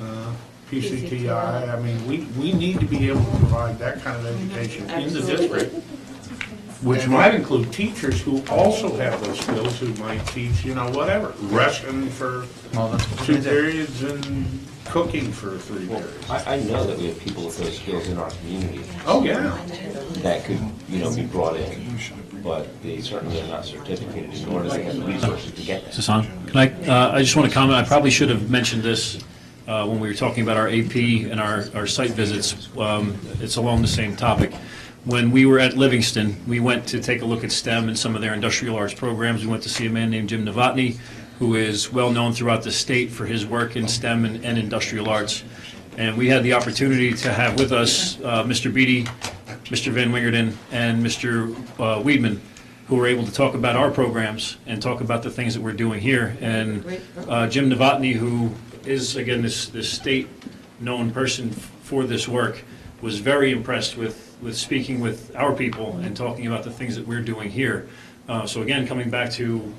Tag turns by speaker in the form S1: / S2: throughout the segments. S1: Uh, PCTI, I mean, we, we need to be able to provide that kind of education in the district, which might include teachers who also have those skills, who might teach, you know, whatever, Russian for
S2: Well, that's what
S1: two
S2: we did.
S1: periods and cooking for three
S3: Well,
S1: periods.
S3: I, I know that we have people with those skills in our community
S1: Oh, yeah.
S3: that could, you know, be brought in, but they certainly are not certificated, nor do they have the resources to get
S4: Is
S3: that.
S4: this on? Can I, uh, I just want to comment, I probably should have mentioned this uh, when we were talking about our AP and our, our site visits. Um, It's along the same topic. When we were at Livingston, we went to take a look at STEM and some of their industrial arts programs. We went to see a man named Jim Novotny, who is well-known throughout the state for his work in STEM and and industrial arts. And we had the opportunity to have with us uh, Mr. Beatty, Mr. Van Wingerden, and Mr. uh, Weedman, who were able to talk about our programs and talk about the things that we're doing here. And uh, Jim Novotny, who is, again, this, this state-known person f- for this work, was very impressed with, with speaking with our people and talking about the things that we're doing here. Uh, So again, coming back to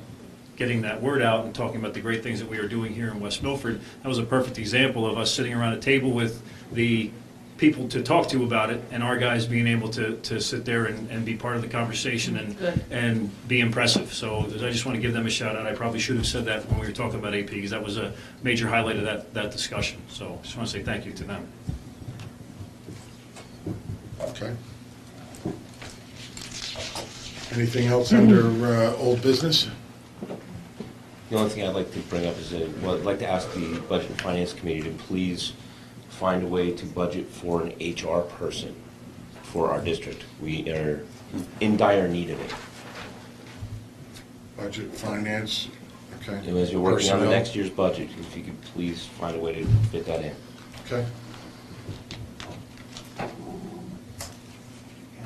S4: getting that word out and talking about the great things that we are doing here in West Milford. That was a perfect example of us sitting around a table with the people to talk to about it and our guys being able to, to sit there and, and be part of the conversation and,
S5: Good.
S4: and be impressive. So I just want to give them a shout out. I probably should have said that when we were talking about AP because that was a major highlight of that, that discussion. So just want to say thank you to them.
S6: Okay. Anything else under uh, old business?
S3: The only thing I'd like to bring up is, that, well, I'd like to ask the Budget and Finance Committee to please find a way to budget for an HR person for our district. We are in dire need of it.
S6: Budget, finance, okay.
S3: And as you're working on the
S6: Personnel,
S3: next year's budget, if you could please find a way to fit that in.
S6: Okay.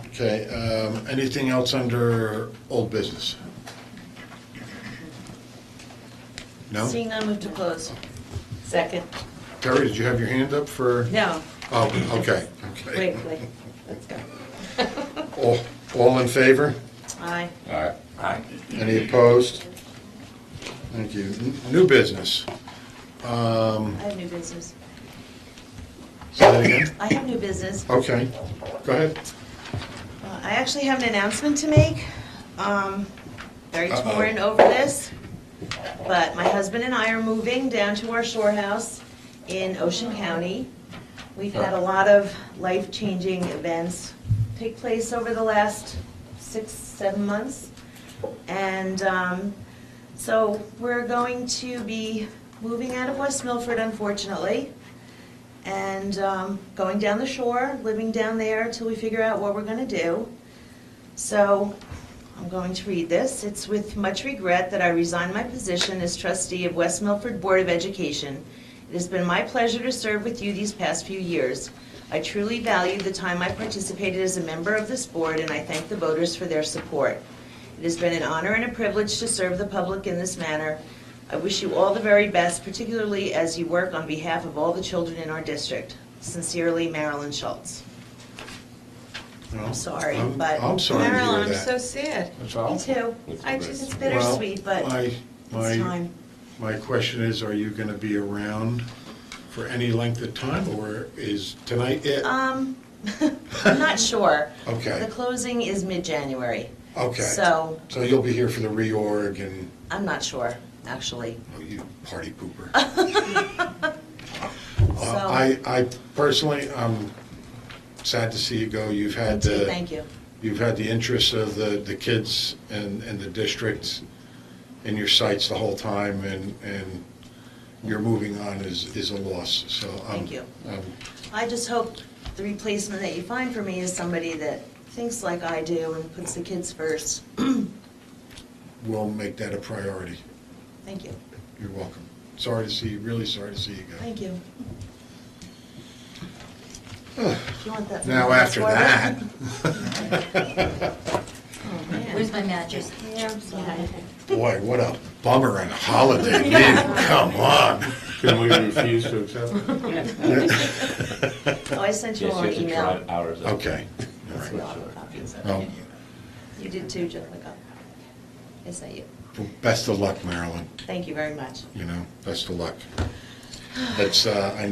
S6: Okay, um, anything else under old business? No?
S5: Seeing none, move to close. Second.
S6: Terry, did you have your hand up for?
S5: No,
S6: Oh, okay,
S5: wait,
S6: okay.
S5: wait, let's go.
S6: All- All in favor?
S5: Aye.
S6: Aye. Aye. Any opposed? Thank you. N- New business. Um,
S5: I have new business.
S6: Say that again?
S5: I have new business.
S6: Okay, go ahead.
S5: Uh, I actually have an announcement to make. Um, Very
S6: Uh-oh.
S5: torn over this, but my husband and I are moving down to our shore house in Ocean County. We've had a lot of life-changing events take place over the last six, seven months. And um, so we're going to be moving out of West Milford, unfortunately and um, going down the shore, living down there until we figure out what we're going to do. So I'm going to read this. It's with much regret that I resign my position as trustee of West Milford Board of Education. It has been my pleasure to serve with you these past few years. I truly value the time I participated as a member of this board, and I thank the voters for their support. It has been an honor and a privilege to serve the public in this manner. I wish you all the very best, particularly as you work on behalf of all the children in our district. Sincerely, Marilyn Schultz. I'm sorry,
S6: I'm-
S5: but-
S6: I'm sorry to
S7: Marilyn,
S6: hear
S7: I'm so
S6: that.
S7: sad.
S1: That's
S5: Me
S1: all.
S5: too. I just, it's bittersweet,
S6: Well,
S5: but
S6: my-
S5: it's
S6: My,
S5: time.
S6: my question is, are you gonna be around for any length of time, or is tonight it?
S5: Um, I'm not sure.
S6: Okay.
S5: The closing is mid-January.
S6: Okay.
S5: So,
S6: So you'll be here for the reorg and,
S5: I'm not sure, actually.
S6: oh, you party pooper. Uh,
S5: So-
S6: I, I personally, I'm sad to see you go. You've had the.
S5: Thank you.
S6: You've had the interests of the, the kids and, and the district in your sights the whole time, and, and your moving on is, is a loss, so. I'm-
S5: Thank you.
S6: I'm-
S5: I just hope the replacement that you find for me is somebody that thinks like I do and puts the kids first.
S6: We'll make that a priority.
S5: Thank you.
S6: You're welcome. Sorry to see, you. really sorry to see you go.
S5: Thank you. If you want that.
S6: Now, after that,
S8: Where's my mattress?
S5: Yeah, I'm sorry.
S6: boy, what a bummer and holiday meeting, come on.
S1: Can we refuse to accept it?
S5: Oh, I sent you
S3: Yes,
S5: all an
S3: you have to
S5: email.
S3: drive hours. up.
S6: Okay, all
S5: That's
S6: right.
S5: a lot of copies of it.
S6: Well,
S5: You did too, Jessica. I sent you.
S6: best of luck, Marilyn,
S5: Thank you very much.
S6: you know, best of luck. That's, uh, I